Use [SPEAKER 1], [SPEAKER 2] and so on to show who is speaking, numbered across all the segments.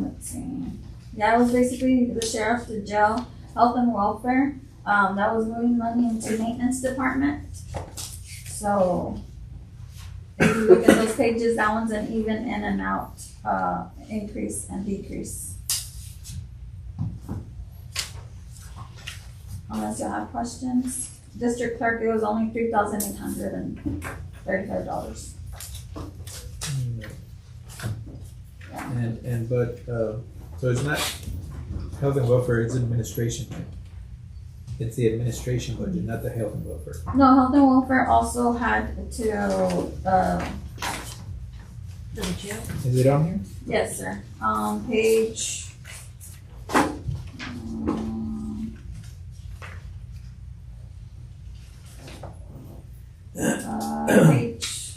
[SPEAKER 1] let's see. That was basically the sheriff, the jail, health and welfare. Um, that was moving money into maintenance department. So if you look at those pages, that one's an even in and out, uh, increase and decrease. Unless you have questions. District clerk, it was only three thousand eight hundred and thirty-five dollars.
[SPEAKER 2] And, and, but, uh, so it's not health and welfare, it's administration. It's the administration budget, not the health and welfare.
[SPEAKER 1] No, health and welfare also had to, uh,
[SPEAKER 3] For the jail?
[SPEAKER 2] Is it on here?
[SPEAKER 1] Yes, sir. Um, page. um, Uh, page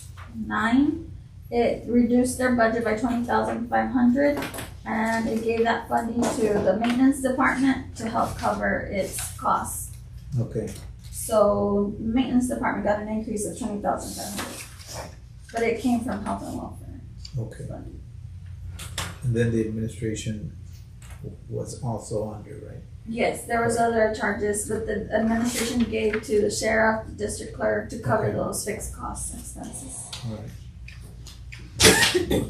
[SPEAKER 1] nine, it reduced their budget by twenty thousand five hundred, and it gave that funding to the maintenance department to help cover its costs.
[SPEAKER 2] Okay,
[SPEAKER 1] So maintenance department got an increase of twenty thousand five hundred, but it came from health and welfare
[SPEAKER 2] okay.
[SPEAKER 1] funding.
[SPEAKER 2] And then the administration w- was also under, right?
[SPEAKER 1] Yes, there was other charges that the administration gave to the sheriff, the district clerk to cover
[SPEAKER 2] Okay.
[SPEAKER 1] those fixed costs and expenses.
[SPEAKER 2] All right. Thank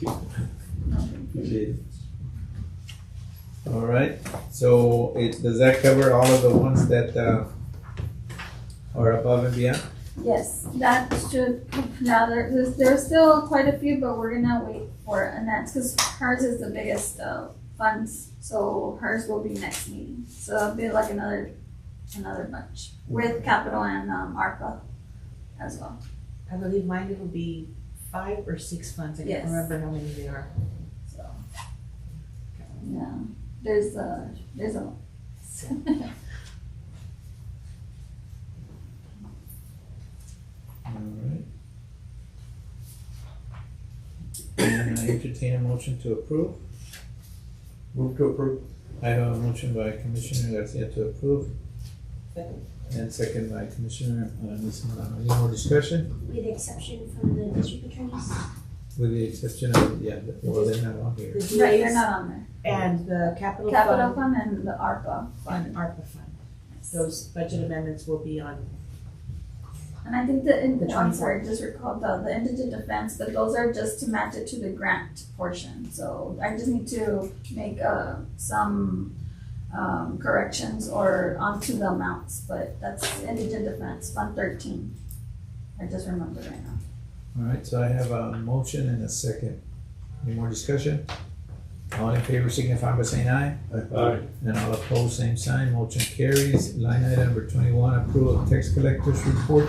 [SPEAKER 2] you. Appreciate it. All right, so it, does that cover all of the ones that, uh, are above and beyond?
[SPEAKER 1] Yes, that should, now there, there's, there's still quite a few, but we're gonna wait for Annette's, cause hers is the biggest, uh, funds. So hers will be next meeting, so it'll be like another, another bunch with capital and, um, ARPA as well.
[SPEAKER 3] I believe mine will be five or six funds, I
[SPEAKER 1] Yes.
[SPEAKER 3] can't remember how many they are.
[SPEAKER 1] So. Yeah, there's a, there's a.
[SPEAKER 2] All right. And I entertain a motion to approve. Move to approve. I have a motion by Commissioner Garcia to approve.
[SPEAKER 3] Second.
[SPEAKER 2] And second by Commissioner, uh, Nisman. Any more discussion?
[SPEAKER 4] With the exception from the district attorneys?
[SPEAKER 2] With the exception of, yeah, the- well, they're not on here.
[SPEAKER 3] The
[SPEAKER 1] Right, they're
[SPEAKER 3] DAs
[SPEAKER 1] not on there.
[SPEAKER 3] and the capital
[SPEAKER 1] Capital
[SPEAKER 3] fund
[SPEAKER 1] fund and the ARPA
[SPEAKER 3] and
[SPEAKER 1] fund.
[SPEAKER 3] ARPA fund. Those budget amendments will be on,
[SPEAKER 1] And I think the, in-
[SPEAKER 3] The
[SPEAKER 1] I'm sorry, just recalled the, the indigent defense, but those are just to match it to the grant portion. So I just need to make, uh, some, um, corrections or onto the amounts, but that's indigent defense, fund thirteen. I just remembered right now.
[SPEAKER 2] All right, so I have a motion and a second. Any more discussion? All in favor signify by saying aye.
[SPEAKER 5] Aye.
[SPEAKER 2] And all opposed, same sign, motion carries. Line item number twenty-one, approval of tax collectors report.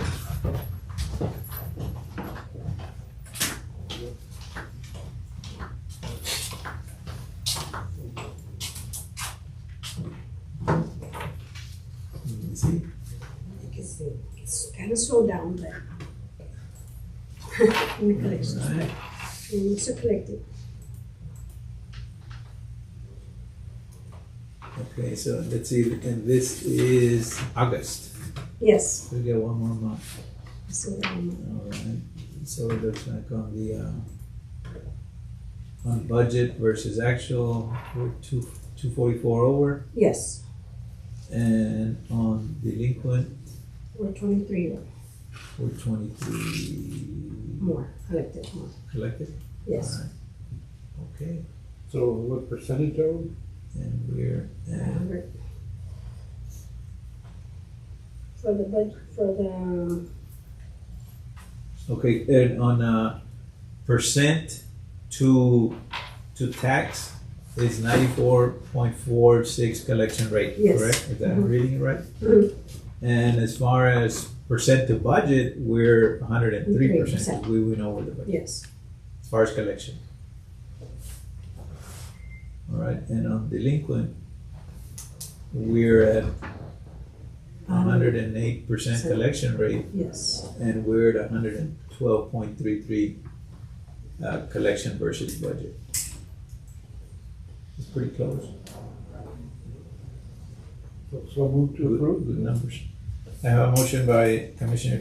[SPEAKER 2] Let me see.
[SPEAKER 6] I think it's, it's kind of slowed down, but. In the collection,
[SPEAKER 2] All right.
[SPEAKER 6] and it's a collective.
[SPEAKER 2] Okay, so let's see, and this is August.
[SPEAKER 6] Yes,
[SPEAKER 2] We got one more month.
[SPEAKER 6] so, um,
[SPEAKER 2] All right, so it looks like on the, uh, on budget versus actual, we're two, two forty-four over,
[SPEAKER 6] yes,
[SPEAKER 2] and on delinquent,
[SPEAKER 6] we're twenty-three or
[SPEAKER 2] we're twenty-three
[SPEAKER 6] more, collective more,
[SPEAKER 2] collected?
[SPEAKER 6] yes.
[SPEAKER 2] All right. Okay,
[SPEAKER 5] So what percentage are we?
[SPEAKER 2] and we're, at-
[SPEAKER 6] Hundred. For the budget, for the, um,
[SPEAKER 2] okay, and on, uh, percent to, to tax is ninety-four point four six collection rate,
[SPEAKER 6] Yes.
[SPEAKER 2] correct? Is that, I'm reading it right?
[SPEAKER 6] Mhm.
[SPEAKER 2] And as far as percent to budget, we're hundred and three
[SPEAKER 6] 103%.
[SPEAKER 2] percent, we went over the budget,
[SPEAKER 6] yes,
[SPEAKER 2] as far as collection. All right, and on delinquent, we're at hundred and eight percent collection rate,
[SPEAKER 6] yes,
[SPEAKER 2] and we're at hundred and twelve point three three uh, collection versus budget. It's pretty close.
[SPEAKER 5] So move to
[SPEAKER 2] Good,
[SPEAKER 5] approve?
[SPEAKER 2] good numbers. I have a motion by Commissioner